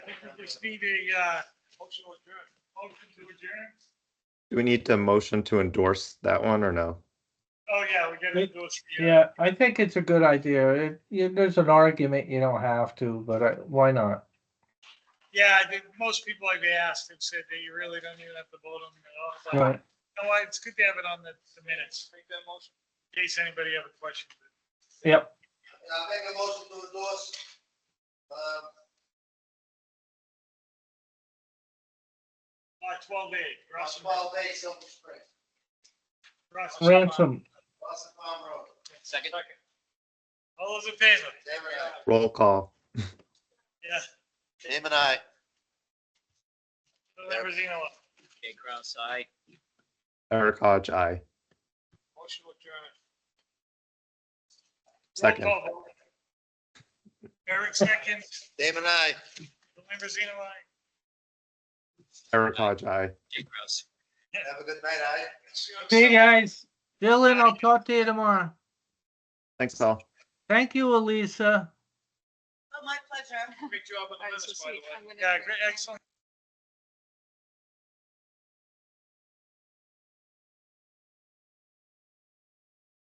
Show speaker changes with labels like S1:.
S1: I think we just need a, uh, motion to adjourn. Motion to adjourn?
S2: Do we need to motion to endorse that one or no?
S1: Oh, yeah, we gotta do it.
S3: Yeah, I think it's a good idea. It, you, there's an argument you don't have to, but I, why not?
S1: Yeah, I think most people I've asked have said that you really don't even have to vote on it at all. but-
S3: Right.
S1: You know what, it's good to have it on the, the minutes. Make that motion. In case anybody have a question.
S3: Yep.
S4: I make a motion to endorse, um,
S1: Uh, twelve A, Russell,
S4: Oswald Day, Silver Spring,
S1: Russell.
S3: Ransom,
S4: Boston Palm Road.
S1: Second. All those in favor?
S4: Damon, I.
S2: Roll call.
S1: Yeah.
S4: Damon, I.
S1: Lambrizino,
S5: Jay Kraus, aye.
S2: Eric Hodge, aye.
S1: motion to adjourn.
S2: Second.
S1: Roll call vote. Eric second,
S4: Damon, I.
S1: Lambrizino, aye.
S2: Eric Hodge, aye.
S5: Jay Kraus.
S4: Have a good night, I.
S3: see you guys. Dylan, I'll talk to you tomorrow.
S2: Thanks, all.
S3: Thank you, Elisa.
S6: Oh, my pleasure.
S1: Great job on the
S6: Alright, so
S1: minutes, by the
S6: sweet, I'm
S1: way.
S6: gonna
S1: Yeah,
S6: do it.
S1: great, excellent